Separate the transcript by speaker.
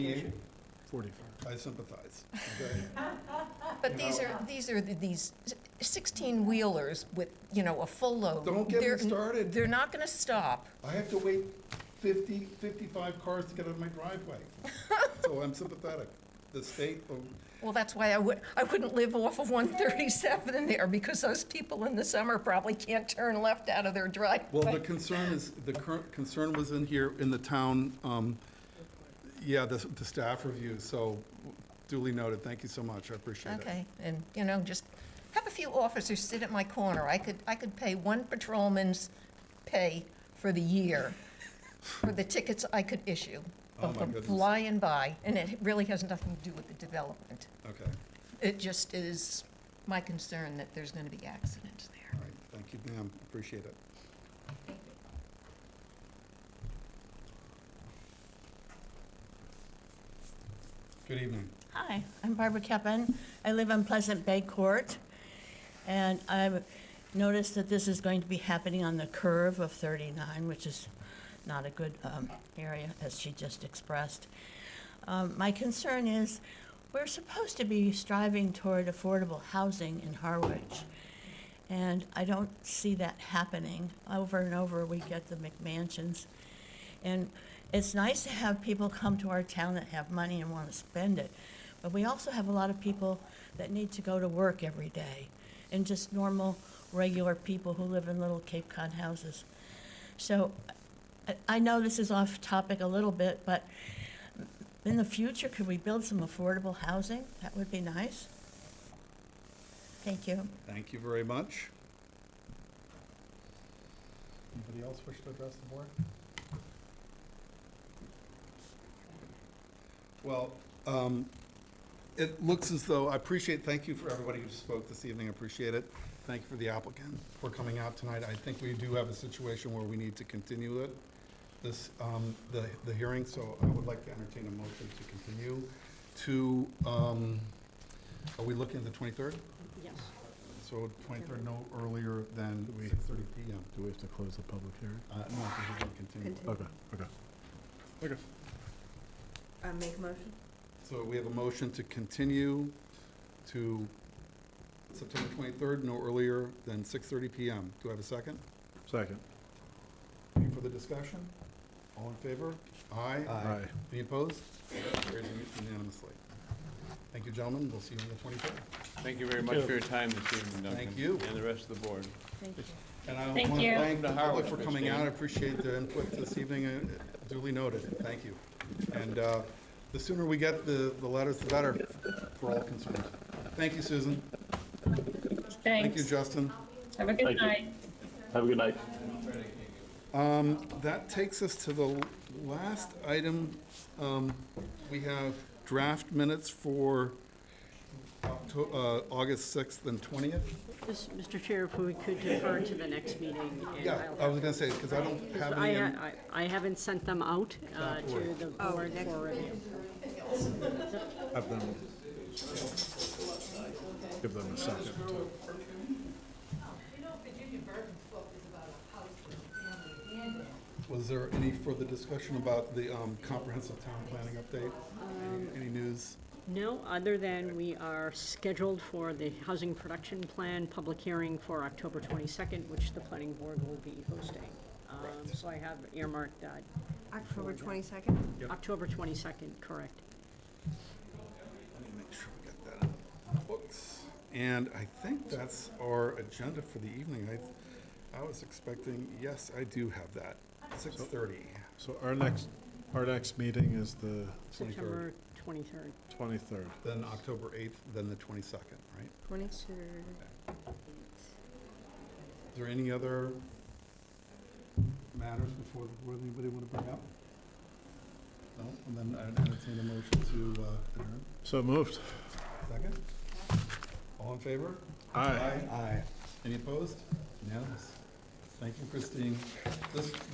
Speaker 1: Forty-five.
Speaker 2: I sympathize.
Speaker 3: But these are,
Speaker 2: uh,
Speaker 3: these are the- these 16-wheelers with, you know, a full load.
Speaker 2: Don't get me
Speaker 3: They're-
Speaker 2: started.
Speaker 3: They're not going to stop.
Speaker 2: I have to wait 50, 55 cars to get out of my driveway. So I'm sympathetic. The state, oh,
Speaker 3: Well, that's why I would, I wouldn't live off of 137 in there, because those people in the summer probably can't turn left out of their
Speaker 2: well, the
Speaker 3: driveway.
Speaker 2: concern is, the current concern was in here, in the town, um, yeah, the, the staff review, so duly noted. Thank you so much. I appreciate it.
Speaker 3: Okay, and, you know, just have a few officers sit at my corner. I could, I could pay one patrolman's pay for the year for the tickets I could issue
Speaker 2: Oh,
Speaker 3: of
Speaker 2: my
Speaker 3: them
Speaker 2: goodness.
Speaker 3: flying by, and it really has nothing to do with the development.
Speaker 2: Okay,
Speaker 3: It just is my concern that there's going to be accidents there.
Speaker 2: all right. Thank you, ma'am. Appreciate it. Good evening.
Speaker 4: Hi, I'm Barbara Keppen. I live on Pleasant Bay Court, and I've noticed that this is going to be happening on the curve of 39, which is not a good um, area, as she just expressed. Um, My concern is, we're supposed to be striving toward affordable housing in Harwich, and I don't see that happening. Over and over, we get the McMansions, and it's nice to have people come to our town that have money and want to spend it. But we also have a lot of people that need to go to work every day and just normal, regular people who live in little Cape Cod houses. So I, I know this is off topic a little bit, but in the future, could we build some affordable housing? That would be nice. Thank you.
Speaker 2: Thank you very much. Anybody else wish to address the board? Well, um, it looks as though, I appreciate, thank you for everybody who spoke this evening, I appreciate it. Thank you for the applicant for coming out tonight. I think we do have a situation where we need to continue it, this, um, the, the hearing, so I would like to entertain a motion to continue to, um, are we looking at the twenty-third? So twenty-third, no earlier than six-thirty PM.
Speaker 1: Do we have to close the public hearing?
Speaker 2: Uh, no, because we're gonna continue.
Speaker 1: Okay, okay.
Speaker 5: Make a motion?
Speaker 2: So we have a motion to continue to September twenty-third, no earlier than six-thirty PM. Do I have a second?
Speaker 1: Second.
Speaker 2: Any further discussion? All in favor? Aye.
Speaker 1: Aye.
Speaker 2: Any opposed? Carries unanimously. Thank you, gentlemen. We'll see you on the twenty-third.
Speaker 6: Thank you very much for your time this evening, Duncan.
Speaker 2: Thank you.
Speaker 6: And the rest of the board.
Speaker 4: Thank you.
Speaker 2: And I
Speaker 7: Thank
Speaker 2: want to
Speaker 7: you.
Speaker 2: thank the
Speaker 6: Welcome to
Speaker 2: public for
Speaker 6: Howard,
Speaker 2: coming out. I
Speaker 6: Christine.
Speaker 2: appreciate their input this evening. uh, Duly noted. Thank you. And uh, the sooner we get the, the letters, the better for all concerned. Thank you, Susan. Thank you,
Speaker 7: Thanks.
Speaker 2: Justin.
Speaker 7: Have a good
Speaker 8: Thank you.
Speaker 7: night.
Speaker 8: Have a good night.
Speaker 2: Um, That takes us to the last item. Um, We have draft minutes for Octo- uh, August 6th and 20th.
Speaker 5: Just, Mr. Chair, if we could defer to the next meeting. and
Speaker 2: Yeah,
Speaker 5: I'll
Speaker 2: I was going to say, because I don't have
Speaker 5: I,
Speaker 2: any. in-
Speaker 5: I I haven't sent them out uh, to
Speaker 2: worry.
Speaker 5: the board for review.
Speaker 1: Have them. Give them a second.
Speaker 2: Was there any further discussion about the um, comprehensive town planning update? Any- Any news?
Speaker 5: No, other than we are scheduled for the Housing Production Plan public hearing for October 22nd, which the planning board will be hosting. Um, So I have earmarked that.
Speaker 9: October 22nd?
Speaker 5: October 22nd, correct.
Speaker 2: Let me make sure we got that in the books. And I think that's our agenda for the evening. I, I was expecting, yes, I do have that, six thirty.
Speaker 1: So our next, our next meeting is the
Speaker 5: September 23rd.
Speaker 1: twenty-third.
Speaker 2: Then October eighth, then the twenty-second, right?
Speaker 9: 22nd.
Speaker 2: Is there any other matters before, the board anybody want to bring up? No, and then I entertain a motion to uh, adjourn.
Speaker 1: So moved.
Speaker 2: Second? All in favor?
Speaker 1: Aye.
Speaker 2: Aye. Any opposed? Unanimous. Thank you, Christine. This